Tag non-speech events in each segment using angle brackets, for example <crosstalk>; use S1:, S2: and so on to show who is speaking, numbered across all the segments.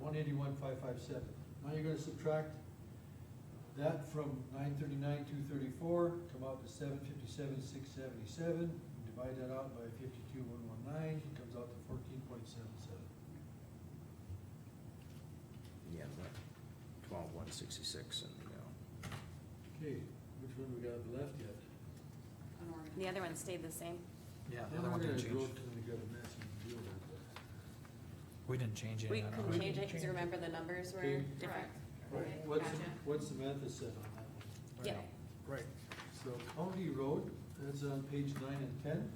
S1: one eighty-one, five five seven. Now you're gonna subtract that from nine thirty-nine, two thirty-four, come out to seven fifty-seven, six seventy-seven. Divide that out by fifty-two, one one nine, it comes out to fourteen point seven seven.
S2: Yeah, but twelve one sixty-six and, you know,
S1: Okay, which one we got left yet?
S3: The other one stayed the same.
S4: Yeah, the
S1: Then
S4: other one
S1: we're
S4: didn't
S1: gonna go
S4: change.
S1: to- We got a massive deal with that.
S4: We didn't change
S3: We
S4: any. of
S3: couldn't
S4: that.
S3: change it, cause remember the numbers were
S1: Change.
S3: different.
S1: Right,
S3: Right,
S1: what's,
S3: gotcha.
S1: what's Samantha said on that one?
S3: Yeah,
S4: Right.
S1: So County Road, that's on page nine and ten.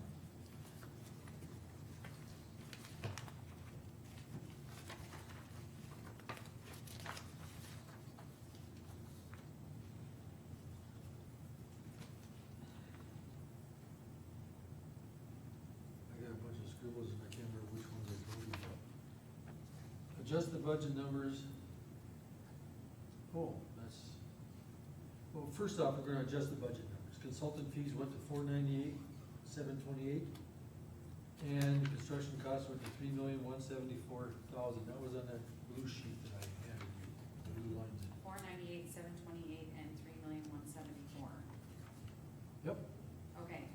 S1: I got a bunch of scribbles and I can't remember which ones I voted for. Adjust the budget numbers. Oh, that's. Well, first off, we're gonna adjust the budget numbers. Consultant fees went to four ninety-eight, seven twenty-eight. And construction costs went to three million, one seventy-four thousand. That was on that blue sheet that I handed you, the blue lines.
S5: Four ninety-eight, seven twenty-eight, and three million, one seventy-four,
S1: Yep.
S5: okay.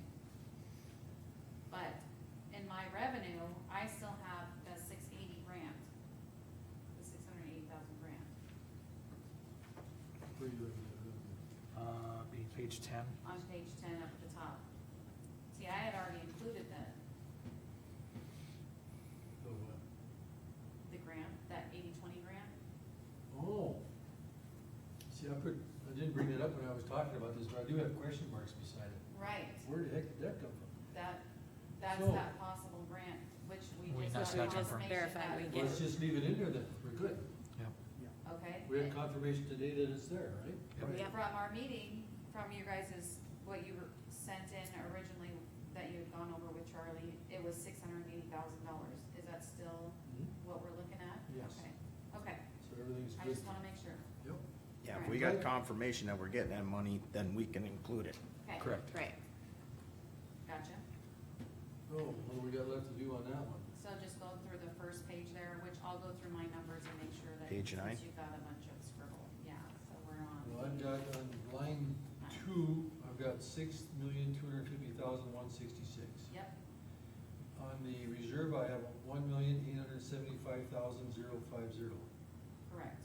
S5: But in my revenue, I still have the six eighty grant, the six hundred and eighty thousand grant
S1: Where you at?
S4: Uh, be page ten.
S5: on page ten up at the top. See, I had already included the,
S1: Oh, uh,
S5: the grant, that eighty-twenty grant,
S1: Oh. See, I put, I didn't bring that up when I was talking about this, but I do have question marks beside it.
S5: right,
S1: Where the heck did that come from?
S5: that, that's
S1: So-
S5: that possible grant, which we
S4: We
S5: just.
S4: just
S5: have
S4: got
S5: confirmation
S3: confirmed. Verified we
S5: that-
S3: get
S1: Let's just leave it in there then. We're good.
S5: Okay.
S1: We have confirmation today that it's there, right?
S4: Yep.
S3: Yep.
S5: from our meeting, from you guys' what you were sent in originally that you had gone over with Charlie, it was six hundred and eighty thousand dollars. Is that still
S1: Mhm.
S5: what we're looking at?
S1: Yes.
S5: Okay, okay,
S1: So everything's
S5: I
S1: good.
S5: just wanna make sure.
S1: Yep.
S2: yeah, if we got confirmation that we're getting that money, then we can include it.
S5: Okay,
S4: Correct.
S3: right.
S5: gotcha.
S1: Oh, what do we got left to do on that one?
S5: So just go through the first page there, which I'll go through my numbers and make sure that.
S2: Page nine?
S5: Since you've got a bunch of scribble, yeah, so we're
S1: Well,
S5: on.
S1: I've got on line two, I've got six million, two hundred fifty thousand, one sixty-six.
S5: Yep,
S1: On the reserve, I have one million, eight hundred seventy-five thousand, zero five zero.
S5: correct.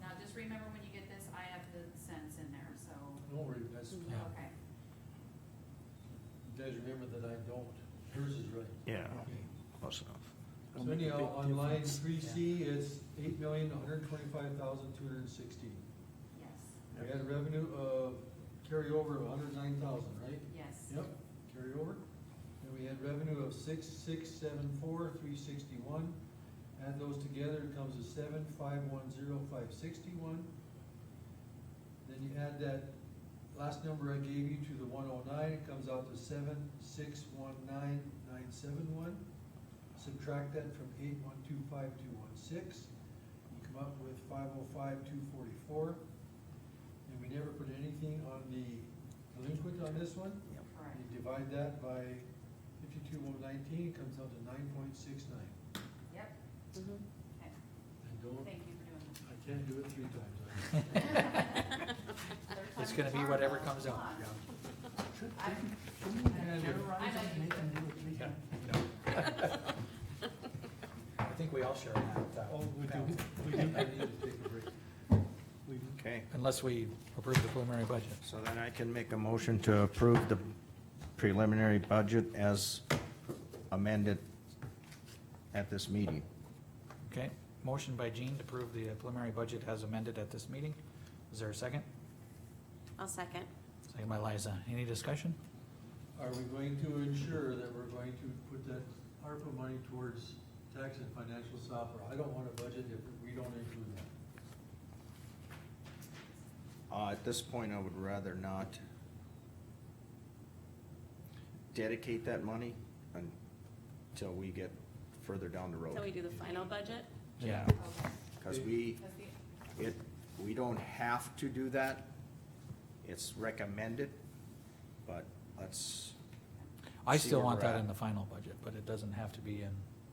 S5: Now, just remember when you get this, I have the cents in there, so,
S1: Don't worry, that's, you
S4: Yeah.
S5: okay.
S1: guys remember that I don't, hers is right.
S2: Yeah.
S1: Okay.
S2: Close enough.
S1: So anyhow, on line three C, it's eight million, one hundred twenty-five thousand, two hundred sixteen.
S5: Yes,
S1: We had revenue of carryover of hundred nine thousand, right?
S5: yes.
S1: Yep, carry over. And we had revenue of six, six, seven, four, three sixty-one. Add those together, it comes to seven, five, one, zero, five, sixty-one. Then you add that last number I gave you to the one oh nine, it comes out to seven, six, one, nine, nine, seven, one. Subtract that from eight, one, two, five, two, one, six. You come up with five oh five, two forty-four. And we never put anything on the delinquent on this one.
S5: Correct.
S1: You divide that by fifty-two, one nineteen, it comes out to nine point six nine.
S5: Yep,
S3: Mhm.
S5: okay.
S1: And don't,
S5: Thank you for doing this.
S1: I can't do it three
S4: <laughs>
S1: times.
S4: It's gonna be whatever comes out.
S5: I, I know you could.
S4: Yeah. No. I think we all share that. uh,
S1: Oh, we do,
S4: balance.
S1: we do, I need to take a break. We do.
S2: Okay,
S4: Unless we approve the preliminary budget.
S2: so then I can make a motion to approve the preliminary budget as amended at this meeting.
S4: Okay, motion by Jean to approve the preliminary budget as amended at this meeting. Is there a second?
S3: I'll second.
S4: Second by Liza. Any discussion?
S1: Are we going to ensure that we're going to put that ARPA money towards tax and financial software? I don't want a budget if we don't include that.
S2: Uh, at this point, I would rather not dedicate that money until we get further down the
S3: Till we
S2: road.
S3: do the final budget?
S4: Yeah.
S5: Okay.
S2: Cause we,
S5: Because the-
S2: it, we don't have to do that. It's recommended, but let's,
S4: I
S2: See
S4: still
S2: where
S4: want
S2: we're
S4: that
S2: at.
S4: in the final budget, but it doesn't have to be in